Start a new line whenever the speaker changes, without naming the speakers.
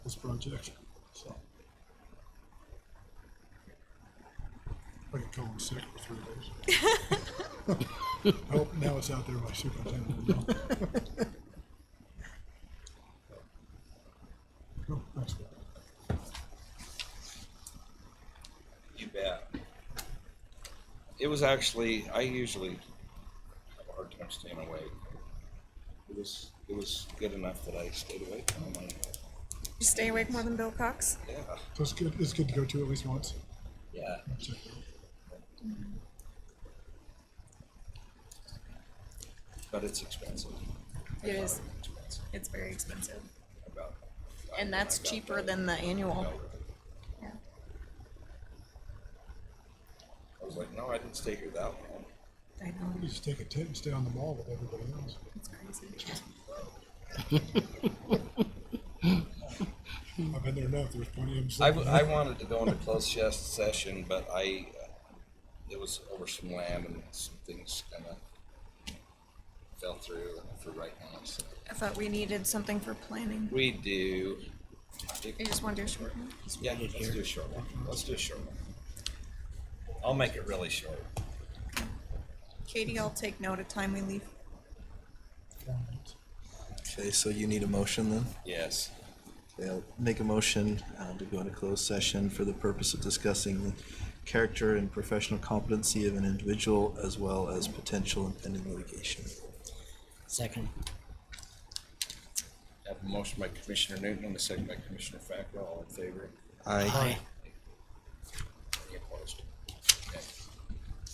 objection, so.
I can call in sick for three days. I hope now it's out there by superintendent. you know. Cool, thanks.
You bet. It was actually I usually have a hard time staying awake. It was it was good enough that I stayed awake. and I'm like,
You stay awake more than Bill Cox?
yeah,
So it's good, it's good to go to at least once.
yeah.
Check it out.
But it's expensive. I
It
found
is.
expensive.
It's very expensive.
I got-
And that's
I got
cheaper
that.
than the
I
annual.
got it.
Yeah.
I was like, no, I didn't stay here that long.
I know.
You just take a tent and stay on the mall with everybody else.
It's crazy.
I've been there enough, there's plenty of them.
Mm. I,
sitting
w-
there.
I wanted to go into closed ses- session, but I uh, it was over some land and some things kind of fell through for right now. So
I thought we needed something for planning.
we do. I think-
You just want to do a short one?
Yeah, let's do a short one. Let's do a short one. I'll make it really short.
Katie, I'll take note of time we leave.
Okay, so you need a motion then?
Yes.
Okay, I'll make a motion uh, to go into closed session for the purpose of discussing the character and professional competency of an individual as well as potential impending litigation.
Second.
I have a motion by Commissioner Newton and a second by Commissioner Fackrell. All in favor?
Aye.
Aye.